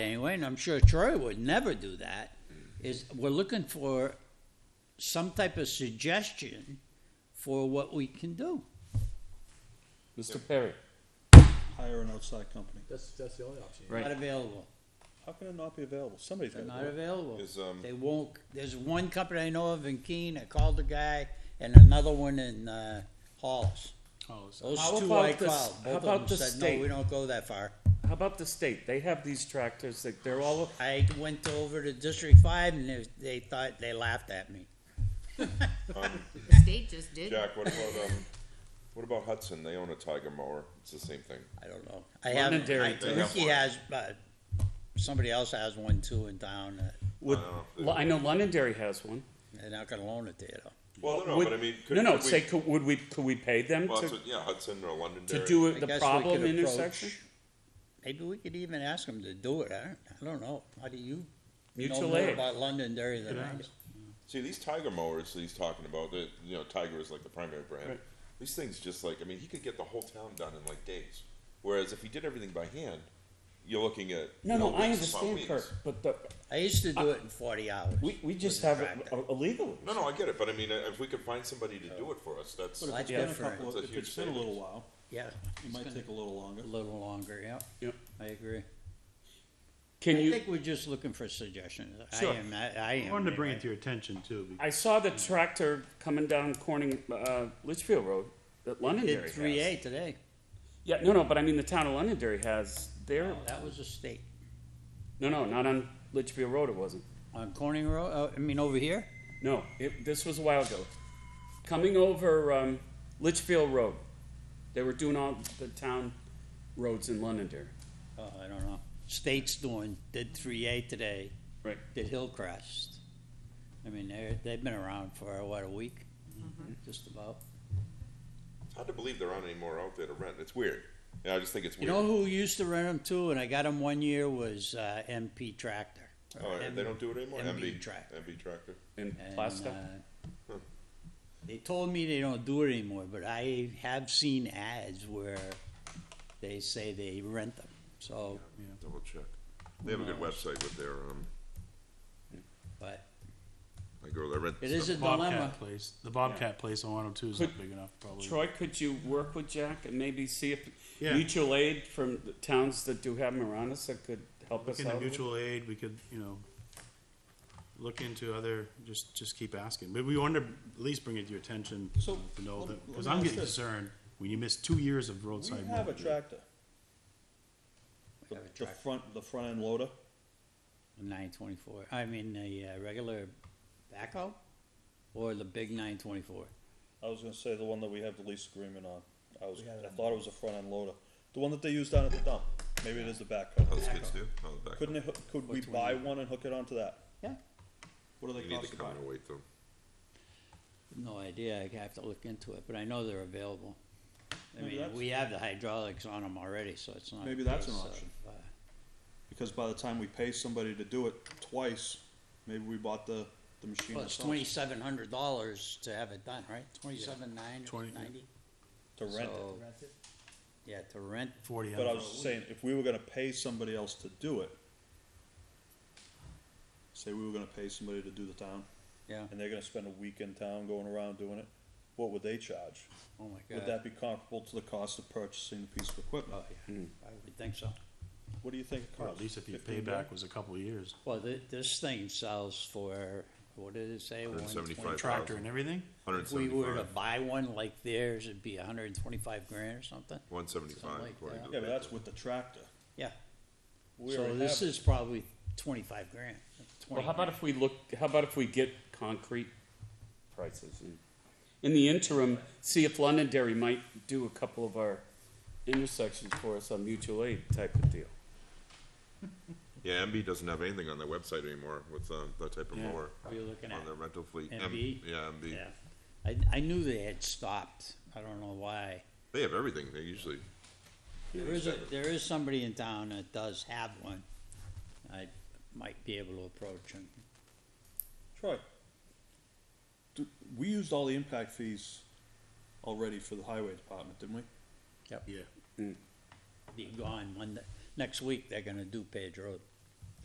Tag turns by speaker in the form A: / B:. A: anyway, and I'm sure Troy would never do that, is we're looking for some type of suggestion for what we can do.
B: Mr. Perry.
C: hire an outside company.
D: That's, that's the only option.
B: Right.
A: Not available.
C: How can it not be available? Somebody's
A: They're
C: got
A: not
C: to do it.
A: available.
E: Is, um,
A: They won't, there's one company I know of in Keene, I called the guy, and another one in, uh, Hollis. Those
B: How
A: two
B: about
A: I
B: the s-
A: called,
B: how
A: both
B: about
A: of
B: the
A: them said,
B: state?"
A: no, we don't go that far.
B: How about the state? They have these tractors that they're all,
A: I went over to District Five and they, they thought, they laughed at me.
F: The state just did.
E: Jack, what about, um, what about Hudson? They own a Tiger mower. It's the same thing.
A: I don't know. I
B: London
A: haven't,
B: Dairy
A: I,
B: does.
A: Ricky has, but somebody else has one too in town, uh,
B: would,
E: know.
B: Well, I know Londonderry has one.
A: they're not gonna loan it to you though.
E: Well, no,
B: Would-
E: but I mean, could,
B: No, no,
E: could we-
B: say, could, would we, could we pay them
E: well,
B: to,
E: it's a- yeah, Hudson or Londonderry.
B: to do
A: I
B: it the
A: guess we
B: problem
A: could approach-
B: intersection?
A: Maybe we could even ask them to do it, I don't, I don't know, how do you know
B: Mutual
A: more
B: aid.
A: about London Dairy than I do?
E: See, these Tiger mowers that he's talking about, that you know, Tiger is like the primary brand.
B: Right.
E: These things just like, I mean, he could get the whole town done in like days. Whereas if he did everything by hand, you're looking at
B: No,
E: you know,
B: no, I
E: weeks upon
B: understand
E: weeks.
B: Kirk, but the,
A: I used to do it in forty hours.
B: Uh, we, we just
A: With a
B: have it
A: tractor.
B: uh, illegally.
E: No, no, I get it, but I mean, uh, if we could find somebody to do it for us, that's
C: But if
A: That's
C: it's been a
A: different.
C: couple, of-
E: That's a
C: if
E: huge
C: it's been a little
E: savings.
C: while,
A: Yeah,
C: it might take a little longer.
A: a little longer, yeah.
B: Yep.
A: I agree.
B: Can
A: I
B: you?
A: think we're just looking for suggestions. I
B: Sure.
A: am, I, I am.
D: I wanted to bring it
A: anyway.
D: to your attention too. because
B: I saw the tractor coming down Corning, uh, Litchfield Road that Londonderry
A: Did
B: has.
A: three A today.
B: Yeah, no, no, but I mean, the town of Londonderry has their,
A: That was a state.
B: no, no, not on Litchfield Road, it wasn't.
A: On Corning Road, uh, I mean, over here?
B: No, it, this was a while ago. Coming over um, Litchfield Road, they were doing all the town roads in Londonderry.
A: Oh, I don't know. State's doing, did three A today,
B: Right.
A: did Hillcrest. I mean, they're, they've been around for, what, a week? Just about.
E: it's hard to believe there aren't any more out there to rent. It's weird. Yeah, I just think it's
A: You
E: weird.
A: know who used to rent them too, and I got them one year, was, uh, MP Tractor. uh, or
E: Oh,
A: M-
E: they don't do it anymore.
A: MB Tractor.
E: MB tractor.
B: In
A: And,
B: Plastow.
A: uh,
E: Hmm.
A: They told me they don't do it anymore, but I have seen ads where they say they rent them, so,
E: Double check. They have a good website with their um.
A: but
E: My girl, that rent.
A: it is a
D: the Bobcat
A: dilemma.
D: place, the Bobcat place on 102 is not big enough probably.
B: Troy, could you work with Jack and maybe see if
D: Yeah.
B: mutual aid from the towns that do have them around us that could help
D: Look
B: us out?
D: into
B: with it?
D: mutual aid, we could, you know, look into other, just, just keep asking. But we wanted to at least bring it to your attention,
C: So,
D: to know
C: let-
D: that,
C: let
D: because
C: me
D: I'm
C: ask
D: getting
C: this.
D: concerned when you miss two years of
C: We
D: roadside.
C: have a
D: mowing.
C: tractor. The,
A: Have a
C: the
A: tractor.
C: front, the front end loader.
A: Nine twenty-four, I mean, the uh, regular backhoe, or the big nine twenty-four?
C: I was gonna say the one that we have the lease agreement on. I was, I thought it was a front end loader. The one that they use down at the dump. Maybe it is the
E: How
C: backhoe.
E: the kids do? How the Oh, back.
C: Couldn't it, hook- could we buy one and hook it onto that?
A: Yeah.
C: What do
E: You
C: they
E: need
C: cost to
E: to come
C: buy?
E: and wait them.
A: No idea, I have to look into it, but I know they're available. I
C: Maybe
A: mean,
C: that's-
A: we have the hydraulics on them already, so it's not. a
C: Maybe that's an
A: case of,
C: option.
A: uh,
C: Because by the time we pay somebody to do it twice, maybe we bought the, the machine
A: Well, it's
C: ourselves
A: twenty-seven hundred dollars to have it done, right? Twenty-seven nine
D: Twenty-
A: ninety?
C: to rent it.
A: So- Yeah, to rent,
D: Forty
C: But I
D: hours.
C: was just saying, if we were gonna pay somebody else to do it, say we were gonna pay somebody to do the town,
A: yeah,
C: and they're gonna spend a week in town going around doing it, what would they charge?
A: oh my
C: Would
A: god,
C: that be comparable to the cost of purchasing the piece of equipment?
A: oh yeah, I would think so.
C: What do you think it
D: Or
C: costs?
D: at least if your
C: $15?
D: payback was a couple of years.
A: Well, thi- this thing sells for, what did it say?
E: 175.
A: 120?
D: Tractor and everything?
E: Hundred
A: If we were to
E: seventy-five.
A: buy one like theirs, it'd be hundred and twenty-five grand or something,
E: One seventy-five.
A: Something like
C: Yeah, but that's with the tractor.
A: yeah.
C: We
A: So
C: already
A: this
C: have-
A: is probably twenty-five grand.
B: Well,
A: 20
B: how about
A: grand.
B: if we look, how about if we get concrete prices and, in the interim, see if Londonderry might do a couple of our intersections for us on mutual aid type of deal.
E: Yeah, MB doesn't have anything on their website anymore with um, that type of
D: Yeah.
E: mower
A: What are you looking
E: on
A: at?
E: their rental fleet. M-
A: MB?
E: Yeah, MB.
A: Yeah, I, I knew they had stopped, I don't know why.
E: They have everything. They usually.
A: There is a, there is somebody in town that does have one. I might be able to approach him.
C: Troy, do- we used all the impact fees already for the highway department, didn't we?
D: Yeah.
A: Be gone one, next week, they're gonna do Page Road.